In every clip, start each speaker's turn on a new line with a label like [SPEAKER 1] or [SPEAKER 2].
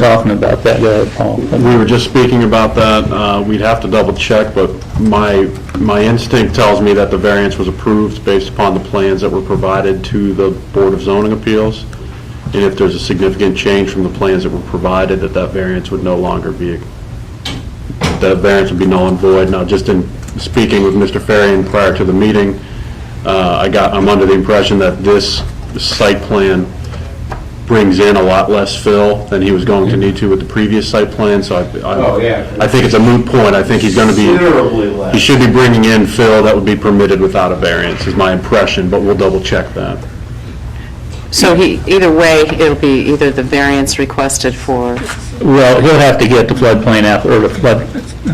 [SPEAKER 1] talking about that, uh, Paul.
[SPEAKER 2] We were just speaking about that, Uh, we'd have to double check, but my, my instinct tells me that the variance was approved based upon the plans that were provided to the Board of Zoning Appeals, and if there's a significant change from the plans that were provided, that that variance would no longer be, that variance would be null and void. Now, just in speaking with Mr. Farian prior to the meeting, uh, I got, I'm under the impression that this site plan brings in a lot less fill than he was going to need to with the previous site plan, so I-
[SPEAKER 3] Oh, yeah.
[SPEAKER 2] I, I think it's a moot point. I think he's going to be,
[SPEAKER 3] Considerably
[SPEAKER 2] he
[SPEAKER 3] less.
[SPEAKER 2] should be bringing in fill that would be permitted without a variance, is my impression, but we'll double check that.
[SPEAKER 4] So he, either way, it'll be either the variance requested for,
[SPEAKER 1] Well, he'll have to get the floodplain app, or the flood,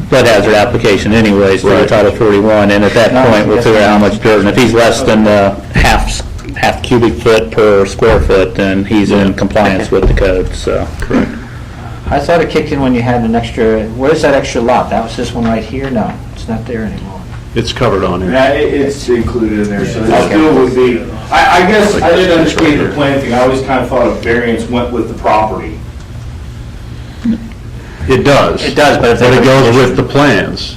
[SPEAKER 1] flood hazard application anyways, for the
[SPEAKER 2] Right.
[SPEAKER 1] Title 41, and at that point, we'll figure out how much dirt, and if he's less than uh, half, s- half cubic foot per square foot, then he's in compliance with the code, so. Correct.
[SPEAKER 5] I thought it kicked in when you had an extra, where's that extra lot? That was this one right here? No, it's not there anymore.
[SPEAKER 2] It's covered on here.
[SPEAKER 3] Yeah, it- It's included in there, so it
[SPEAKER 5] Okay.
[SPEAKER 3] still would be, I, I guess, I didn't understand the plan thing, I always kind of thought a variance went with the property.
[SPEAKER 2] It does.
[SPEAKER 5] It does, but if they-
[SPEAKER 2] it goes with the plans.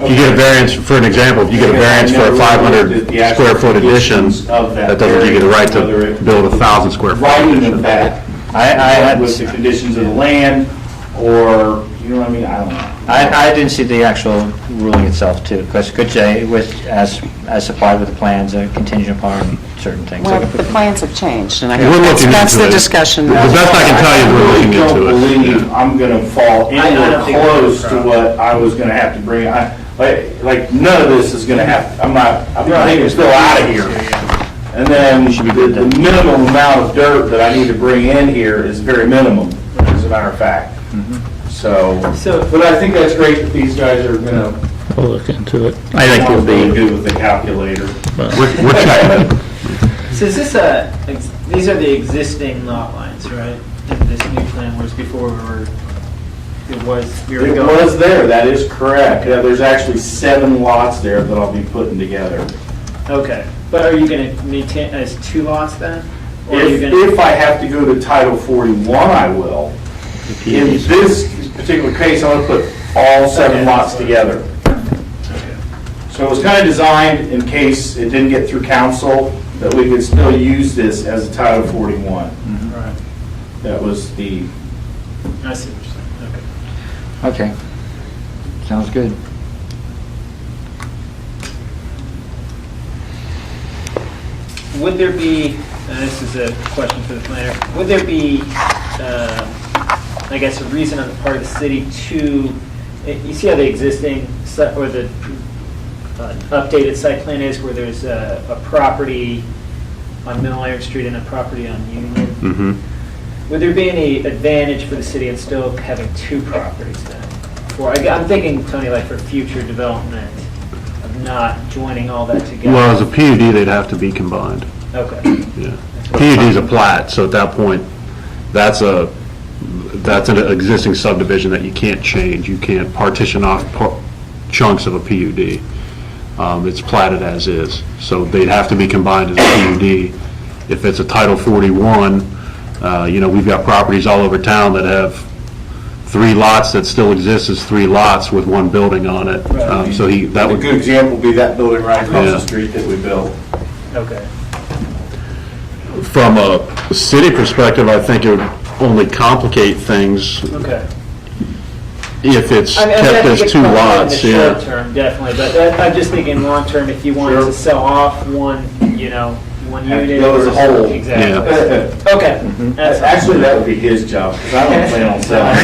[SPEAKER 2] If you get a variance, for an example, if you get a
[SPEAKER 3] Okay.
[SPEAKER 2] variance for a
[SPEAKER 3] Because I never looked at the
[SPEAKER 2] 500
[SPEAKER 3] actual
[SPEAKER 2] square foot addition,
[SPEAKER 3] conditions of that
[SPEAKER 2] that doesn't give you the right
[SPEAKER 3] variance,
[SPEAKER 2] to
[SPEAKER 3] whether it-
[SPEAKER 2] build a 1,000 square foot.
[SPEAKER 3] Writing of that,
[SPEAKER 5] I, I had,
[SPEAKER 3] with the conditions of the land, or, you know what I mean, I don't know.
[SPEAKER 5] I, I didn't see the actual ruling itself too, because it could say with, as, as supplied with the plans, uh, contingent upon certain things.
[SPEAKER 4] well, the plans have changed, and I,
[SPEAKER 2] We're looking
[SPEAKER 4] that's that's
[SPEAKER 2] into
[SPEAKER 4] the
[SPEAKER 2] it.
[SPEAKER 4] discussion.
[SPEAKER 2] The best I can tell you is we're looking into it.
[SPEAKER 3] I don't believe I'm gonna fall anywhere close to what I was gonna have to bring, I, like, like, none of this is gonna have, I'm not, I'm not even still out of here. And then the the minimum amount of dirt that I need to bring in here is very minimum, as a matter of fact. So, but I think that's great that these guys are gonna,
[SPEAKER 1] We'll look into it. I think
[SPEAKER 3] are
[SPEAKER 1] it'll
[SPEAKER 3] really
[SPEAKER 1] be,
[SPEAKER 3] good with the calculator.
[SPEAKER 2] We're we're checking.
[SPEAKER 6] So is this a, ex- these are the existing lot lines, right? And this new plan was before we were, it was, we were
[SPEAKER 3] It
[SPEAKER 6] going.
[SPEAKER 3] was there, that is correct. Yeah, There's actually seven lots there that I'll be putting together.
[SPEAKER 6] Okay, but are you gonna maintain as two lots then? Or are you
[SPEAKER 3] If,
[SPEAKER 6] gonna,
[SPEAKER 3] if I have to go to Title 41, I will. In this particular case, I'm going to put all seven
[SPEAKER 6] Okay.
[SPEAKER 3] lots together. So it was kind of designed in case it didn't get through council, that we could still use this as a Title 41.
[SPEAKER 6] right,
[SPEAKER 3] That was the,
[SPEAKER 6] I see what you're saying, okay.
[SPEAKER 5] Okay. Sounds good.
[SPEAKER 6] Would there be, and this is a question for the planner, would there be, um, I guess, a reason on the part of the city to, eh, you see how the existing, si- or the uh, updated site plan is, where there's a a property on Mill Iron Street and a property on Union?
[SPEAKER 2] Mhm.
[SPEAKER 6] Would there be any advantage for the city in still having two properties then? For, I- I'm thinking, Tony, like for future development, of not joining all that together?
[SPEAKER 2] Well, as a PUD, they'd have to be combined,
[SPEAKER 6] Okay.
[SPEAKER 2] yeah. PUD's a plat, so at that point, that's a, that's an existing subdivision that you can't change. You can't partition off par- chunks of a PUD. Um, It's platted as is, so they'd have to be combined as a PUD. If it's a Title 41, uh, you know, we've got properties all over town that have three lots that still exist as three lots with one building on it. Um, So he, that
[SPEAKER 3] a
[SPEAKER 2] would.
[SPEAKER 3] good example would be that building right across
[SPEAKER 2] Yeah.
[SPEAKER 3] the street that we built.
[SPEAKER 6] Okay.
[SPEAKER 2] From a city perspective, I think it would only complicate things
[SPEAKER 6] Okay.
[SPEAKER 2] if it's
[SPEAKER 6] I mean, I mean, I
[SPEAKER 2] kept
[SPEAKER 6] think
[SPEAKER 2] as
[SPEAKER 6] it's
[SPEAKER 2] two
[SPEAKER 6] probably
[SPEAKER 2] lots,
[SPEAKER 6] In the
[SPEAKER 2] yeah.
[SPEAKER 6] short term, definitely, but I- I'm just thinking long term, if you wanted
[SPEAKER 3] Sure.
[SPEAKER 6] to sell off one, you know, one
[SPEAKER 3] Have to
[SPEAKER 6] unit.
[SPEAKER 3] go as a
[SPEAKER 6] or-
[SPEAKER 3] whole.
[SPEAKER 6] Exactly. Okay. That's fine.
[SPEAKER 3] Actually, that would be his job, 'cause I don't plan on selling.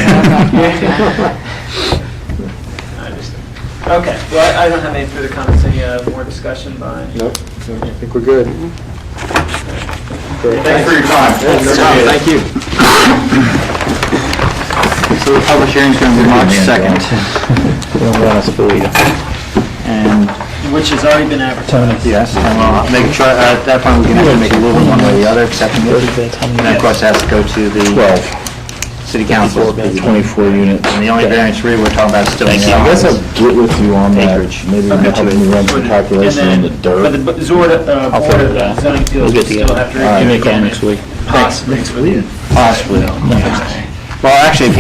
[SPEAKER 6] I understand. Okay, well, I I don't have any further comments, any uh, more discussion by? Nope, I think we're good.
[SPEAKER 3] Thanks for your time. Thank you.
[SPEAKER 5] So the public hearing's going to be March 2nd,
[SPEAKER 1] we don't want us to believe it.
[SPEAKER 5] and
[SPEAKER 6] Which has already been advertised.
[SPEAKER 5] Yes, and we'll make, try- at that point, we can have to make a ruling one way or the other, accepting it. And then, of course, it has to go to the city council. Twenty-four units. And the only variance really we're talking about is still in the
[SPEAKER 7] I guess
[SPEAKER 5] office.
[SPEAKER 7] I'll get with you on that, maybe you can help me run some calculation on
[SPEAKER 6] And
[SPEAKER 7] the
[SPEAKER 6] then,
[SPEAKER 7] dirt.
[SPEAKER 6] But the b- Zord, uh,
[SPEAKER 1] I'll
[SPEAKER 6] Board
[SPEAKER 1] figure it out.
[SPEAKER 6] of Zoning Appeals
[SPEAKER 1] We'll
[SPEAKER 6] will
[SPEAKER 1] get together.
[SPEAKER 6] still have
[SPEAKER 1] You
[SPEAKER 6] to review
[SPEAKER 1] may call
[SPEAKER 6] again
[SPEAKER 1] next
[SPEAKER 6] if
[SPEAKER 1] week.
[SPEAKER 6] Possibly.
[SPEAKER 5] Possibly.
[SPEAKER 1] No. Well, actually, if you